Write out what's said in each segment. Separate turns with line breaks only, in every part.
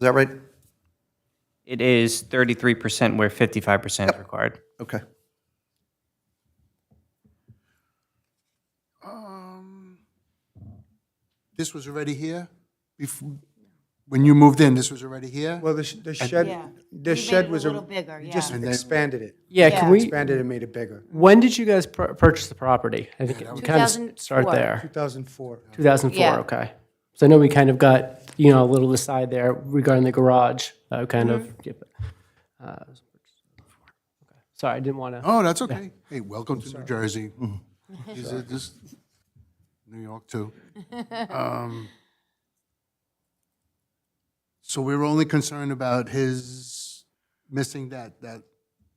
that right?
It is 33% where 55% is required.
Okay. Um.
This was already here? Bef- When you moved in, this was already here?
Well, the sh- the shed,
Yeah.
the
We made
shed
it
was.
a little bigger,
you
yeah.
Just
And
then-
expanded it,
Yeah, can
Yeah.
we,
expanded and made it bigger.
when did you guys pur- purchase the property? I think we kind of start
2004.
there.
2004.
2004,
Yeah.
okay. So I know we kind of got, you know, a little aside there regarding the garage, uh, kind of.
Mm-hmm.
yeah, but, uh, okay. Sorry, I didn't want to,
Oh, that's okay. Hey, welcome to New Jersey. Mm-hmm. Is it just New York too? Um, So we're only concerned about his missing that, that,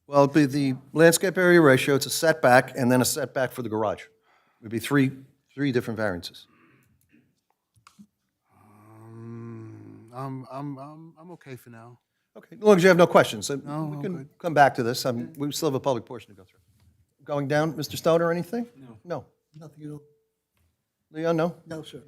Well, it'd be the landscape area ratio, it's a setback, and then a setback for the garage. It'd be three, three different variances.
I'm, I'm, I'm, I'm okay for now.
Okay, as long as you have no questions, then we can come back to this. I'm- We still have a public portion to go through. Going down, Mr. Stoner, anything? No. No? Nothing at all. Leon, no? No, sir.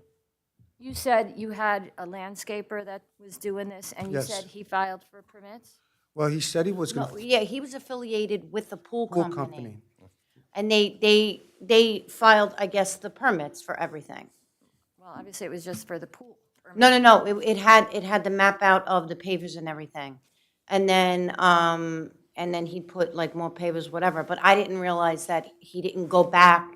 You said you had a landscaper that was doing this, and you
Yes.
said he filed for permits?
Well, he said he was going
No,
to
Yeah, he was affiliated with the pool
pool
company.
company.
And they, they, they filed, I guess, the permits for everything.
Well, obviously, it was just for the pool. permit.
No, no, no, it, it had, it had the map out of the pavers and everything. And then, um, and then he put like more pavers, whatever, but I didn't realize that he didn't go back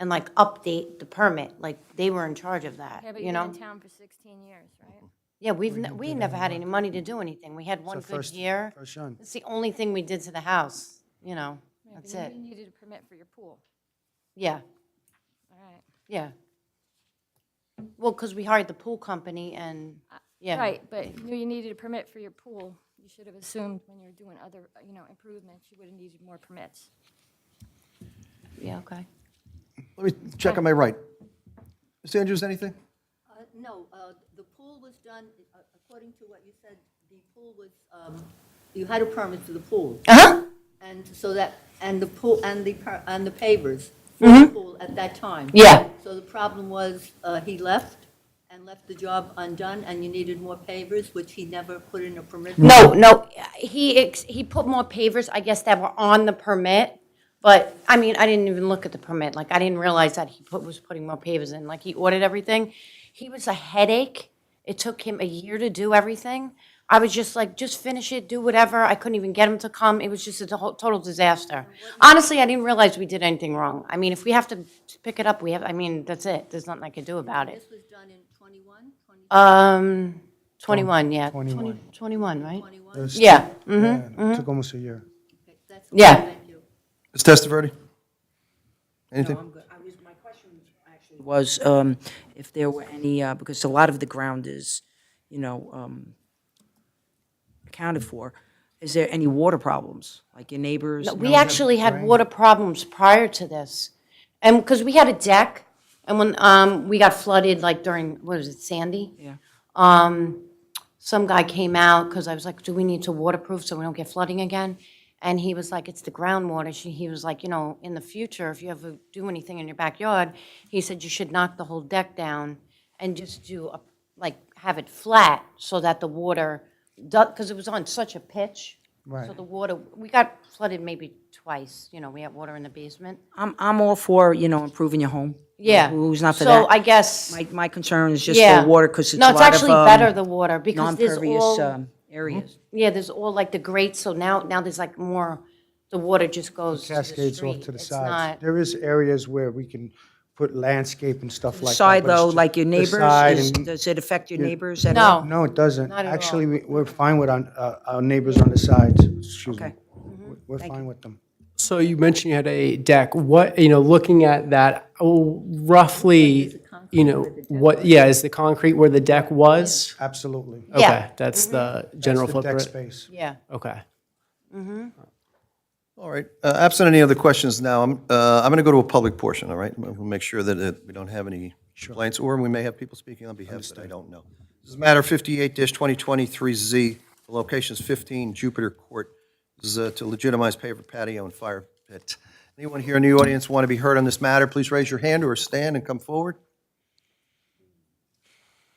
and like update the permit, like they were in charge of that,
Yeah, but
you
you've been
know?
in town for 16 years, right?
Yeah, we've, ne- we never had any money to do anything, we had one good
first-
year.
first run.
It's the only thing we did to the house, you know, that's
You-
it,
You needed a permit for your pool,
yeah.
all right.
Yeah. Well, because we hired the pool company and, yeah.
Uh, Right, but you knew you needed a permit for your pool. You should have assumed when you were doing other, you know, improvements, you would have needed more permits.
Yeah, okay.
Let me check on my right. Mr. Andrews, anything?
Uh, No, uh, the pool was done, uh, according to what you said, the pool was, um, you had a permit for the pool.
Uh-huh.
And so that, and the pool, and the, per- and the pavers for the pool at that time.
Mm-hmm. Yeah.
So the problem was, uh, he left and left the job undone, and you needed more pavers, which he never put in a permit.
No, no, he, ex- he put more pavers, I guess, that were on the permit. But, I mean, I didn't even look at the permit. Like, I didn't realize that he put, was putting more pavers in. Like, he ordered everything. He was a headache. It took him a year to do everything. I was just like, just finish it, do whatever. I couldn't even get him to come. It was just a to- total disaster. Honestly, I didn't realize we did anything wrong. I mean, if we have to pick it up, we have, I mean, that's it. There's nothing I could do about it.
This was done in 21, 20,
Um, 21, yeah. 21. 21, right?
21?
Yeah, mm,
Yeah, it Took almost a year.
Okay, that's all.
Yeah.
Thank you.
Ms. Testaverde? Anything?
was um, if there were any, uh, because a lot of the ground is, you know, um, accounted for. Is there any water problems, like your neighbors?
we actually had water problems prior to this. And, because we had a deck, and when, um, we got flooded, like during, what was it, Sandy?
Yeah.
Some guy came out, because I was like, do we need to waterproof so we don't get flooding again? And he was like, it's the groundwater. She, he was like, you know, in the future, if you ever do anything in your backyard, he said you should knock the whole deck down and just do, a like, have it flat so that the water, because it was on such a pitch. So
Right.
the water, we got flooded maybe twice, you know, we had water in the basement.
I'm, I'm all for, you know, improving your home.
Yeah.
Who's not for
So I
that?
guess,
My, my concern is just
yeah.
the water, because it's a
No, it's
lot of
actually better, the
um,
water, because there's
non-pervious
all,
um,
Hmm?
areas.
yeah, there's all like the grates, so now, now there's like more, the water just goes to the
Cascades off
street.
to the
It's
sides.
not-
There is areas where we can put landscape and stuff like that.
Side
but it's
though,
ju-
like your
the
neighbors,
side
is-
and-
does it affect your neighbors at all?
No,
No, it doesn't.
Not at all.
Actually, we- we're fine with our, uh, our neighbors on the sides, excuse me.
Okay.
We- We're fine with them.
so you mentioned you had a deck. What, you know, looking at that, oh, roughly, you know, what, yeah, is the concrete where the deck was?
Absolutely. That's
Yeah. Mm-hmm.
Okay, that's the general
the deck
footprint?
space.
yeah.
Okay.
All right, uh, absent any other questions now, I'm, uh, I'm going to go to a public portion, all right? We'll we'll make sure that uh, we don't have any complaints, or we may have people speaking on behalf that I don't know. This is matter 58-2023Z, the location is 15 Jupiter Court. This is uh, to legitimize paver patio and fire pit. Anyone here in the audience want to be heard on this matter, please raise your hand or stand and come forward.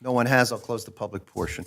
No one has, I'll close the public portion.